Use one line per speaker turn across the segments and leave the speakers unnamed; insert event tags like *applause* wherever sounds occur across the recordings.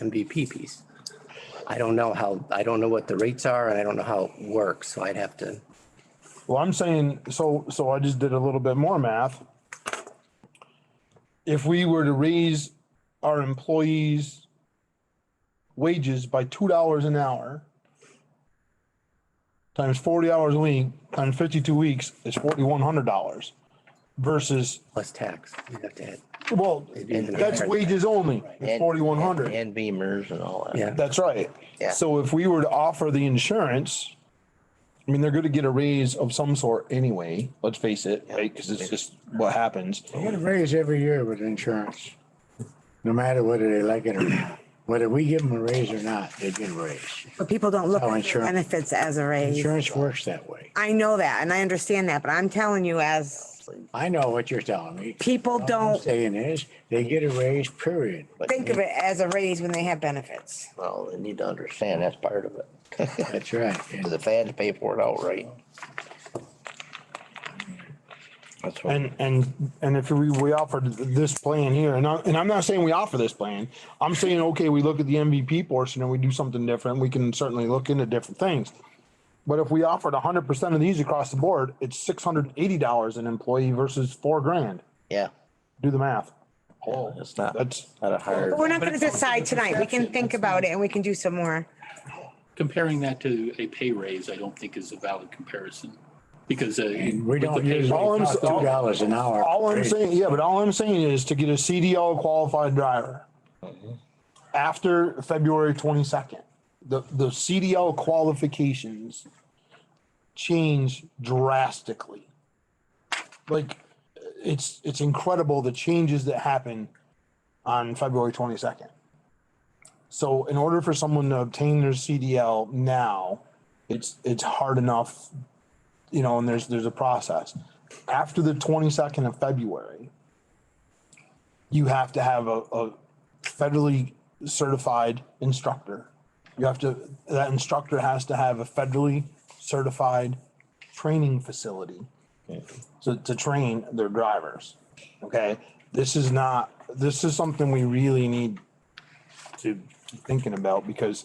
MVP piece. I don't know how, I don't know what the rates are and I don't know how it works, so I'd have to,
Well, I'm saying, so, so I just did a little bit more math. If we were to raise our employees' wages by two dollars an hour, times forty hours a week, times fifty-two weeks, is forty-one hundred dollars versus,
plus tax, you'd have to add,
well,
even
that's
higher.
wages only, it's
And-
forty-one hundred.
And beamers and all that.
yeah.
That's right.
Yeah.
So if we were to offer the insurance, I mean, they're gonna get a raise of some sort anyway, let's face it, right? Cause it's just what happens.
You get a raise every year with insurance, no matter whether they like it or not. Whether we give them a raise or not, they get a raise.
But people don't look
Oh,
at the
insurance.
benefits as a raise.
Insurance works that way.
I know that and I understand that, but I'm telling you as
I know what you're telling me.
people
All Oh, I'm
don't
Saying is, they get a raise, period.
But
think of it as a raise when they have benefits.
Well, they need to understand that's part of it.
That's right. And
The fans pay for it outright. That's what,
And, and, and if we, we offered this plan here, and I, and I'm not saying we offer this plan. I'm saying, okay, we look at the MVP portion and we do something different. We can certainly look into different things. But if we offered hundred percent of these across the board, it's six hundred and eighty dollars an employee versus four grand.
yeah,
Do the math.
it's not,
That's,
not a hard.
But we're not
But
gonna
it's also
decide
the
tonight. We can
perception.
think about it and we can do some more.
comparing that to a pay raise, I don't think is a valid comparison because. uh,
we
with the
don't
pay
usually
All I'm-
cost two dollars an hour.
All I'm
raise.
saying, yeah, but all I'm saying is to get a CDL qualified driver after February twenty-second. The, the CDL qualifications change drastically. Like, it's, it's incredible the changes that happen on February twenty-second. So in order for someone to obtain their CDL now, it's, it's hard enough you know, and there's there's a process. After the 22nd of February, you have to have a, a federally certified instructor. You have to that instructor has to have a federally certified training facility to, to train their drivers. Okay. This is not this is something we really need to be thinking about because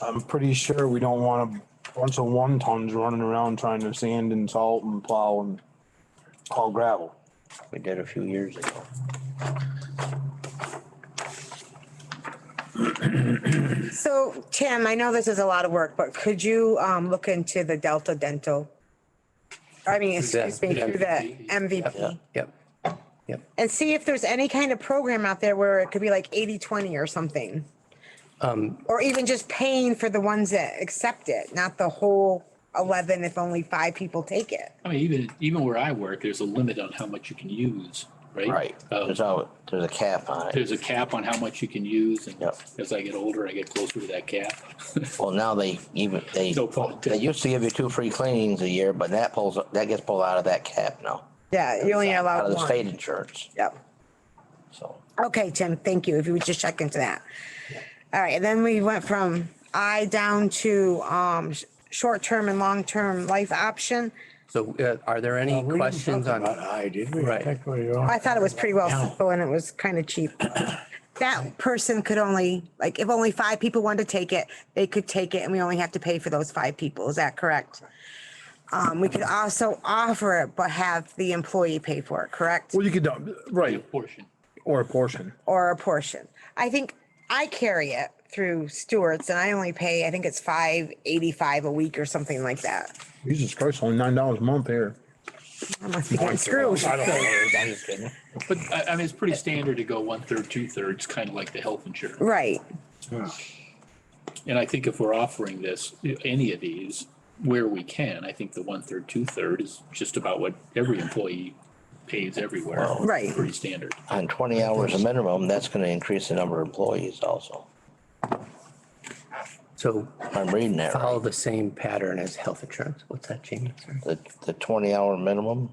I'm pretty sure we don't want a bunch of one tons running around trying to sand and salt and plow and haul gravel.
We did a few years ago.
So Tim, I know this is a lot of work, but could you um look into the Delta Dental? I mean, excuse me, through the MVP
Yep, yep.
and see if there's any kind of program out there where it could be like 80, 20 or something. Or even just paying for the ones that accept it, not the whole eleven if only five people take it.
I mean, even, even where I work, there's a limit on how much you can use, right? Um,
There's all, there's a cap on it.
There's a cap on how much you can use and
Yep.
as I get older, I get closer to that cap. *laughs*
Well, now they even, they,
No fault.
they used to give you two free cleanings a year, but that pulls, that gets pulled out of that cap now.
Yeah, you only
Out
allow
of the state
one.
insurance,
Yep.
so.
Okay, Tim, thank you. If you would just check into that. All right, and then we went from I down to um sh- short-term and long-term life option.
So uh, are there
Uh,
any
we didn't
questions
talk
on?
about I did. we?
Right.
That's where you are.
I thought it was pretty well simple and it was kind of cheap. That person could only, like, if only five people wanted to take it, they could take it and we only have to pay for those five people. Is that correct? Um, we could also offer it, but have the employee pay for it, correct?
Well, you could, dump- right,
Portion.
or a portion.
Or a portion. I think I carry it through Stewart's and I only pay, I think it's five eighty-five a week or something like that.
Jesus Christ, only nine dollars a month here.
I must be getting screwed.
I don't know. I'm just kidding.
But I, I mean, it's pretty standard to go one third, two thirds, kind of like the health insurance.
Right.
And I think if we're offering this, any of these, where we can, I think the one third, two third is just about what every employee pays everywhere.
Right.
Pretty standard.
On twenty hours a minimum, that's gonna increase the number of employees also.
So
I'm reading that right.
follow the same pattern as health insurance. What's that, Jamie? Sorry.
the, the twenty hour minimum,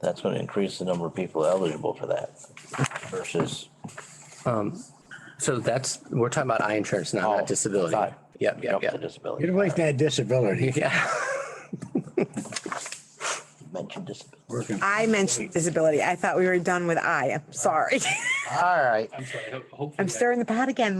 that's gonna increase the number of people eligible for that versus,
So that's, we're talking about eye insurance now,
Oh,
not disability.
sorry.
Yep,
you
yep,
know, the
yep.
You
disability.
don't like that disability.
*laughs* Yeah.
You Mentioned disability.
Working.
I mentioned disability. I thought we were done with I. I'm sorry. *laughs*
All right.
I'm sorry, ho- hopefully.
I'm
that-
stirring the pot again.